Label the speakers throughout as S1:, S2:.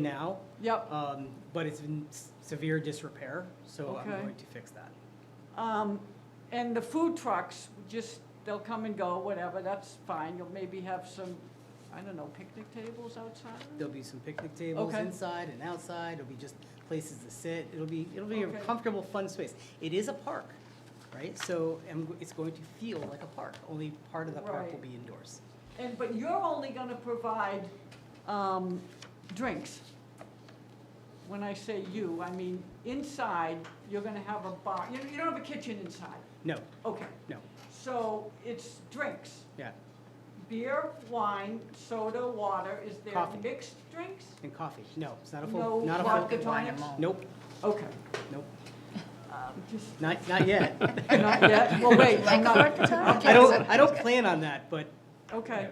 S1: now,
S2: Yep.
S1: um, but it's in s- severe disrepair, so I'm
S2: Okay.
S1: going to fix that.
S2: Um, And the food trucks, just, they'll come and go, whatever, that's fine. You'll maybe have some, I don't know, picnic tables outside?
S1: There'll be some picnic tables
S2: Okay.
S1: inside and outside, it'll be just places to sit, it'll be, it'll be a
S2: Okay.
S1: comfortable, fun space. It is a park, right? So, and it's going to feel like a park, only part of the park will
S2: Right.
S1: be indoors.
S2: And, but you're only gonna provide um, drinks. When I say you, I mean inside, you're gonna have a bar, you you don't have a kitchen inside.
S1: No,
S2: Okay,
S1: no,
S2: so it's drinks,
S1: yeah,
S2: beer, wine, soda, water. Is there
S1: Coffee.
S2: mixed drinks?
S1: and coffee, no, it's not a
S2: No
S1: full, not a full.
S2: vodka tonics?
S1: Nope,
S2: Okay.
S1: nope,
S2: um, just-
S1: not, not yet.
S2: Not yet, well, wait, I'm not,
S1: I don't, I don't plan on that, but,
S2: okay,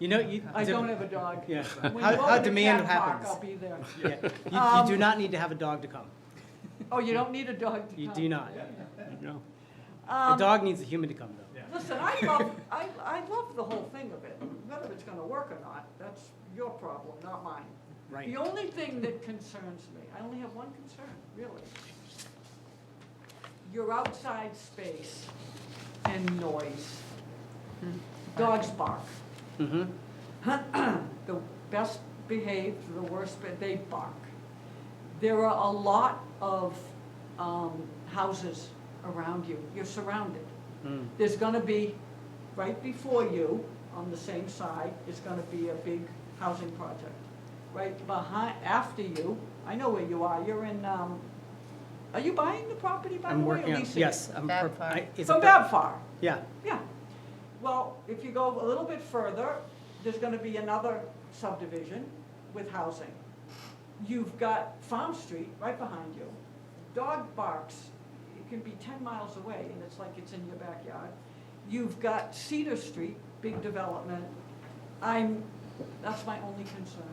S1: you know, you.
S2: I don't have a dog.
S1: Yeah,
S2: When you
S1: how, how
S2: open a
S1: demand
S2: cat park,
S1: happens.
S2: I'll be there.
S1: Yeah, you,
S2: Um,
S1: you do not need to have a dog to come.
S2: Oh, you don't need a dog to
S1: You
S2: come.
S1: do not.
S3: No.
S1: The
S2: Um,
S1: dog needs a human to come, though.
S2: Listen, I love, I, I love the whole thing of it, whether it's gonna work or not, that's your problem, not mine. The
S1: Right.
S2: only thing that concerns me, I only have one concern, really. Your outside space and noise. Dogs bark.
S1: Mm-hmm.
S2: the best behaved, the worst, but they bark. There are a lot of um, houses around you. You're surrounded.
S1: Mm.
S2: There's going to be, right before you, on the same side, is going to be a big housing project. Right behind, after you, I know where you are. You're in, um, are you buying the property by the
S1: I'm
S2: way, or
S1: working on,
S2: leasing? it?
S1: yes. I'm
S4: Bad
S1: per-
S4: part.
S1: I- it's a
S2: From
S1: per-
S2: Babfar.
S1: Yeah,
S2: Yeah, well, if you go a little bit further, there's gonna be another subdivision with housing. You've got Farm Street right behind you. Dog barks, it can be ten miles away, and it's like it's in your backyard. You've got Cedar Street, big development. I'm, that's my only concern,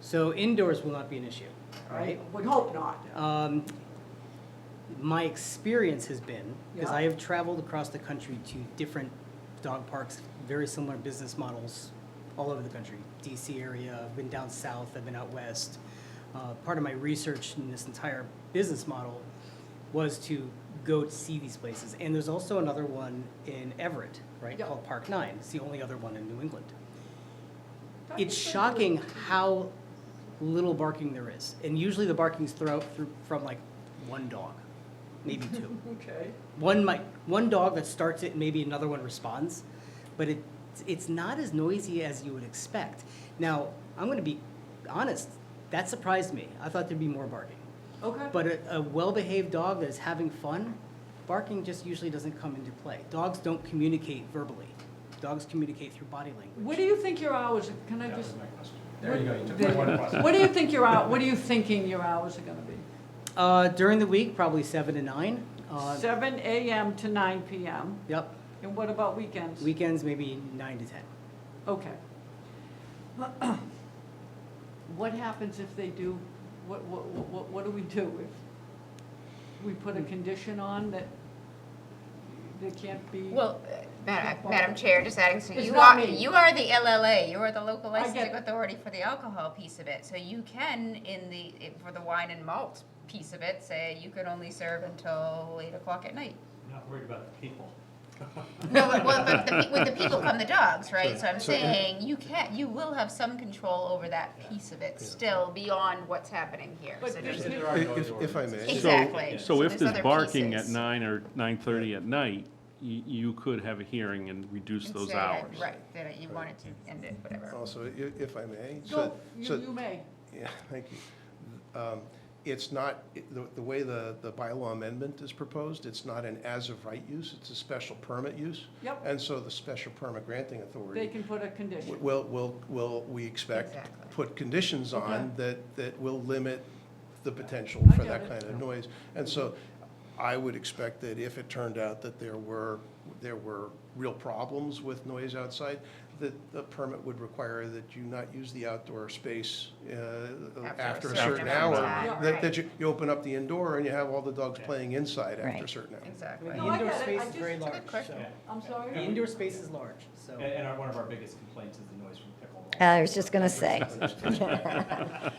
S1: so indoors will not be an issue,
S2: all
S1: right?
S2: right? We hope not.
S1: Um, my experience has been, because I
S2: Yeah.
S1: have traveled across the country to different dog parks, very similar business models all over the country. DC area, I've been down south, I've been out west. Uh, part of my research in this entire business model was to go to see these places. And there's also another one in Everett, right,
S2: Yeah.
S1: called Park Nine. It's the only other one in New England
S2: Dr.
S1: it's
S2: Sandberg,
S1: shocking how little barking there is. And usually the barking's throughout through from like one dog, maybe two.
S2: Okay,
S1: one might one dog that starts it, maybe another one responds, but it it's not as noisy as you would expect. Now, I'm going to be honest, that surprised me. I thought there'd be more barking.
S2: okay.
S1: But a, a well-behaved dog that's having fun, barking just usually doesn't come into play. Dogs don't communicate verbally. Dogs communicate through body language.
S2: What do you think your hours, are- can I
S3: That
S2: just?
S3: was my question. There you go, you took
S2: There
S3: my
S2: you
S3: one
S2: go.
S3: question.
S2: What do you think your hour, what are you thinking your hours are gonna be?
S1: Uh, during the week, probably seven to nine. Uh,
S2: Seven AM to nine PM,
S1: Yep,
S2: and what about weekends?
S1: weekends maybe nine to ten.
S2: Okay. What happens if they do, what, what, what, what do we do if we put a condition on that they can't be?
S4: Well, uh, Madam Madam Chair, just adding, so
S2: It's
S4: you
S2: not
S4: are,
S2: me.
S4: you are the LLA, you are the local
S2: I get
S4: licensing
S2: that.
S4: authority for the alcohol piece of it. So you can, in the, i- for the wine and malt piece of it, say you can only serve until eight o'clock at night.
S5: Not worried about the people.
S4: No, but, well, but the, pe- with the people come the dogs, right?
S5: Sure,
S4: So I'm
S5: sure.
S4: saying, you can, you will have some control over that piece of it still beyond what's happening here.
S2: But
S4: So
S2: there's
S4: there's-
S5: There are no
S6: If, if I
S5: ordinances.
S6: may,
S3: So-
S4: Exactly.
S3: So if
S4: there's
S3: there's
S4: other
S3: barking at
S4: pieces.
S3: nine or nine-thirty at night, you, you could have a hearing and reduce
S4: and
S3: those
S4: say that-
S3: hours.
S4: Right, that you wanted to end it, whatever.
S6: also, i- if I may. so-
S2: Go, you,
S6: so-
S2: you may.
S6: Yeah, thank you. Um, It's not, it- the, the way the, the bylaw amendment is proposed, it's not an as-of-right use, it's a special permit use.
S2: Yep.
S6: And so the special permit granting authority.
S2: They can put a condition.
S6: Will, will, will, we expect,
S4: Exactly.
S6: put conditions on that, that will limit the potential
S2: I
S6: for
S2: get
S6: that
S2: it.
S6: kind of noise. And so I would expect that if it turned out that there were, there were real problems with noise outside, that the permit would require that you not use the outdoor space uh, after a certain
S4: amount
S6: hour.
S4: of
S2: time,
S6: That,
S4: right.
S6: that you, you open up the indoor and you have all the dogs playing inside after a
S4: Right.
S6: certain hour.
S4: Exactly.
S1: The
S2: No, I
S1: indoor
S2: get it.
S1: space
S2: I
S1: is very
S2: just-
S1: large, so.
S4: question.
S2: I'm
S1: The
S2: sorry?
S1: indoor space is large, so.
S5: And and our, one of our biggest complaints is the noise from pickleball.
S7: I was just going to say.